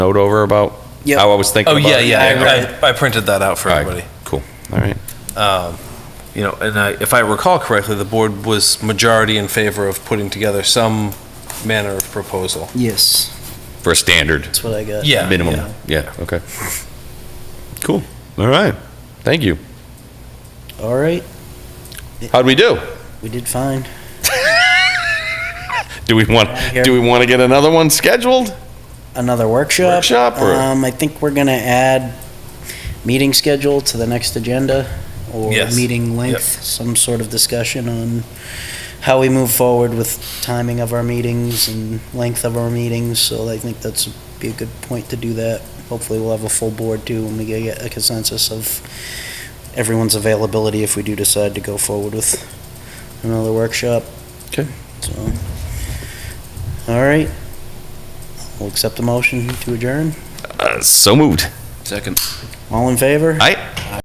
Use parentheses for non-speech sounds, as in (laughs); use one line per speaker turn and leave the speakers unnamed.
note over about
Yep.
how I was thinking
Oh,
about
yeah,
it?
yeah. I, I printed that out for
All right,
everybody.
Cool, all right.
Um, You know, and I, if I recall correctly, the board was majority in favor of putting together some manner of proposal.
Yes,
For a standard
that's what I got.
Yeah.
minimum, yeah, okay. Cool, all right, thank you.
All right,
How'd we (laughs) do?
we did fine.
Do we want,
Here.
do we want to get another one scheduled?
Another workshop.
Workshop or-
Um, I think we're gonna add meeting schedule to the next agenda or
Yes.
meeting length, some sort of discussion on how we move forward with timing of our meetings and length of our meetings. So I think that's be a good point to do that. Hopefully we'll have a full board too when we get a consensus of everyone's availability if we do decide to go forward with another workshop.
Okay.
So, all right. We'll accept the motion to adjourn.
Uh, So moved.
Second.
All in favor?
Aye.